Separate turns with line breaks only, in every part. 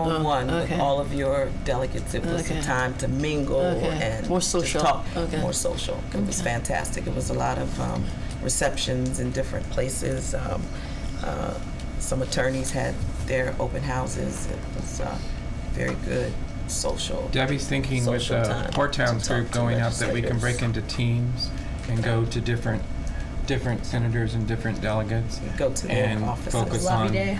one-on-one
Oh,
with
okay.
all of your delegates. It was
Okay.
a time to mingle
Okay.
and
More
to
social.
talk,
Okay.
more social. It was fantastic. It was a lot of um, receptions in different places. Um, uh, some attorneys had their open houses. It was uh, very good social.
Debbie's thinking with
Social
the
time
Port Towns
to talk
group
to
going up that we can break into teams and go to different, different senators and different delegates.
Go to their
And
offices.
focus
Lobby
on,
day.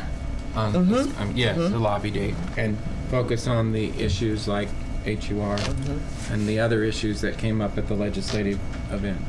on, um, yes, the lobby day. And focus on the issues like HUR
Mm-hmm.
and the other issues that came up at the legislative event.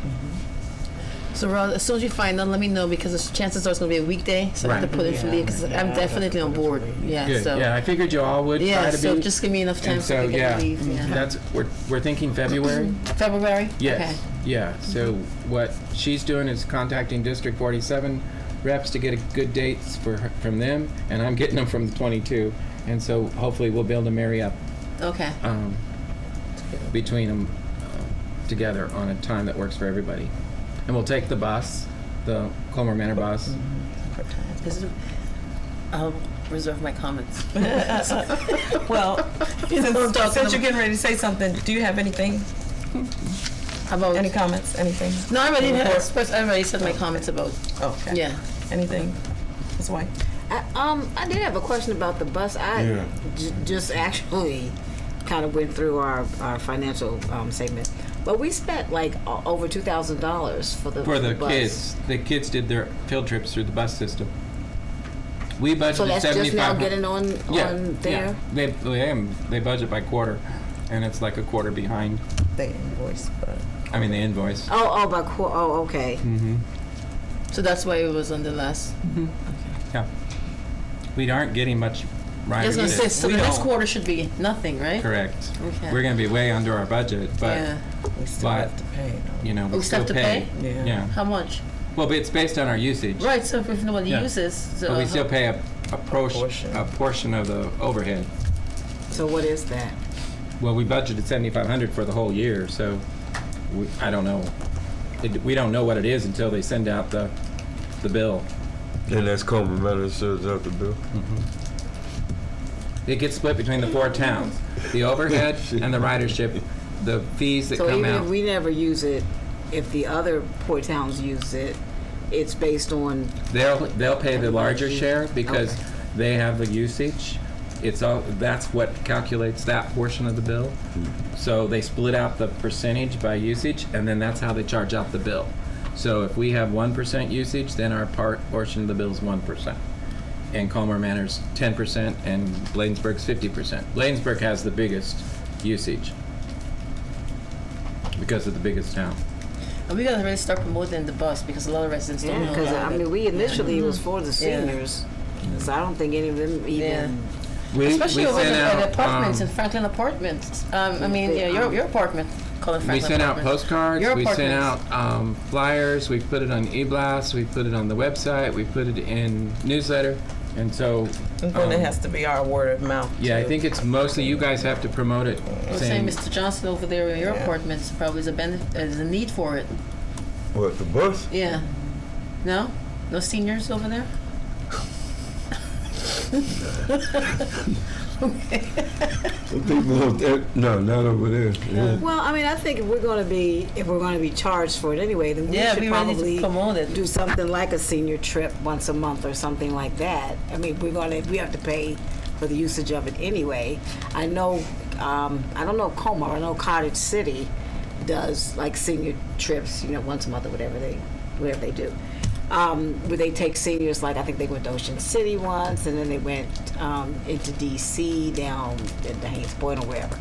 So, Ron, as soon as you find out, let me know because the chances are it's going to be a weekday. So I have to
Right.
put in for leave because I'm
Yeah,
definitely on board. Yeah.
Good,
So.
yeah, I figured you all would
Yeah,
try to be.
so just give me enough time
And so,
to get
yeah, Mm-hmm.
leave. Yeah.
that's, we're, we're thinking February?
February?
Yes,
Mm-hmm.
yeah, so what she's doing is contacting District 47 reps to get a good dates for, her- from them, and I'm getting them from the 22, and so hopefully we'll be able to marry up
Okay. Okay.
um, between them together on a time that works for everybody. And we'll take the bus, the Colmar Manor
Mm-hmm.
bus.
This is- I'll reserve my comments.
Well, since,
Don't talk to
since
them.
you're getting ready to say something, do you have anything?
How about?
Any comments? Anything?
no, I already had.
Report.
expressed- I already said my comments about.
Okay.
Yeah.
Anything? Ms. White?
I, um, I did have a question about the bus. I
Yeah.
j- just actually kind of went through our, our financial um, segment, but we spent like o- over two thousand dollars for the
For the
bus.
kids, the kids did their field trips through the bus system. We
So
budgeted
that's just now
7,500.
getting on
Yeah,
on
yeah.
there.
They, they, um, they budget by quarter, and it's like a quarter behind.
They invoice, but.
I mean, the invoice.
Oh, oh, by qu- oh, okay.
Mm-hmm.
So that's why it was on the last.
Yeah. We aren't getting much
I
right
was
with
going to say, so
it.
the next quarter should be nothing, right?
Correct.
Okay.
We're gonna be way under our budget, but,
yeah.
We still
But-
have to pay. no?
you know,
Oh, still
we still
have to
pay.
pay?
Yeah.
How much?
Well, but it's based on our usage.
Right. So if, if nobody
Yeah.
uses, so
But we still pay a, a portion,
portion.
a portion of the overhead.
So what is that?
Well, we budgeted seventy-five hundred for the whole year, so we, I don't know. It, we don't know what it is until they send out the, the bill.
And that's complimentary service after bill.
It gets split between the four towns, the overhead and the ridership, the fees that
So
come
even
out.
if we never use it, if the other poor towns use it, it's based on
They'll, they'll pay the larger share because they have the usage. It's all, that's what calculates that portion of the bill.
Hmm.
So they split out the percentage by usage and then that's how they charge out the bill. So if we have one percent usage, then our part, portion of the bill is one percent. And Colmar Manor's ten percent and Bladensburg's fifty percent. Bladensburg has the biggest usage because of the biggest town.
And we got to really start promoting the bus because a lot of residents don't
Yeah,
know
because
about
I
it.
mean, we initially it was for the
Mm-hmm. Yeah.
seniors, so I don't think any of them even.
Yeah.
We- we
Especially over
sent
the, at
out,
apartments
um,
in Franklin Apartments. Um, I mean,
They-
yeah, your, your apartment, call it Franklin
We sent out
Apartments.
postcards,
Your
we sent
apartments.
out um, flyers, we put it on e-blast, we put it on the website, we put it in newsletter, and so,
And then it
um,
has to be our word of mouth.
yeah, I
too.
think it's mostly you guys have to promote it,
I was saying
saying,
Mr. Johnson over there in your apartments probably is a benefit, is a need for it.
What, the bus?
Yeah. No? No seniors over there?
I think more of that- No, not over there. Yeah.
Well, I mean, I think if we're going to be if we're going to be charged for it anyway, then we
yeah,
should
we really need
probably
to promote it.
do something like a senior trip once a month or something like that. I mean, we're going to we have to pay for the usage of it anyway. I know, um, I don't know Como, I know Cottage City does like senior trips, you know, once a month or whatever they whatever they do. Um, where they take seniors, like I think they went to Ocean City once, and then they went um, into DC down at the Haynes Point or wherever.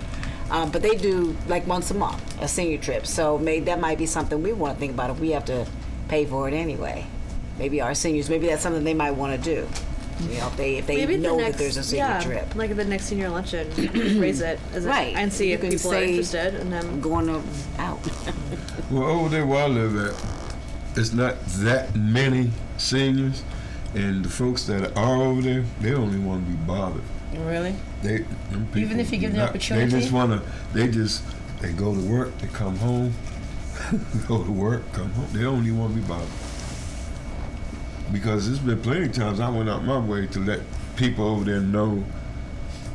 Um, but they do like once a month a senior trip, so may, that might be something we want to think about if we have to pay for it anyway. Maybe our seniors, maybe that's something they might want to do. You know, if they if they
Maybe the
know
next,
that there's a senior
yeah,
trip,
Like at the next senior luncheon, raise it as a-
Right.
and see
You
if
can
people are
say-
interested. And then
going to, out.
Well, over there where I live at, it's not that many seniors, and the folks that are over there, they don't even want to be bothered.
Really?
They them people
Even if you
do
give them
not-
opportunity?
they just want to. They just they go to work, they come home, go to work, come home. They don't even want to be bothered. Because there's been plenty of times I went out my way to let people over there know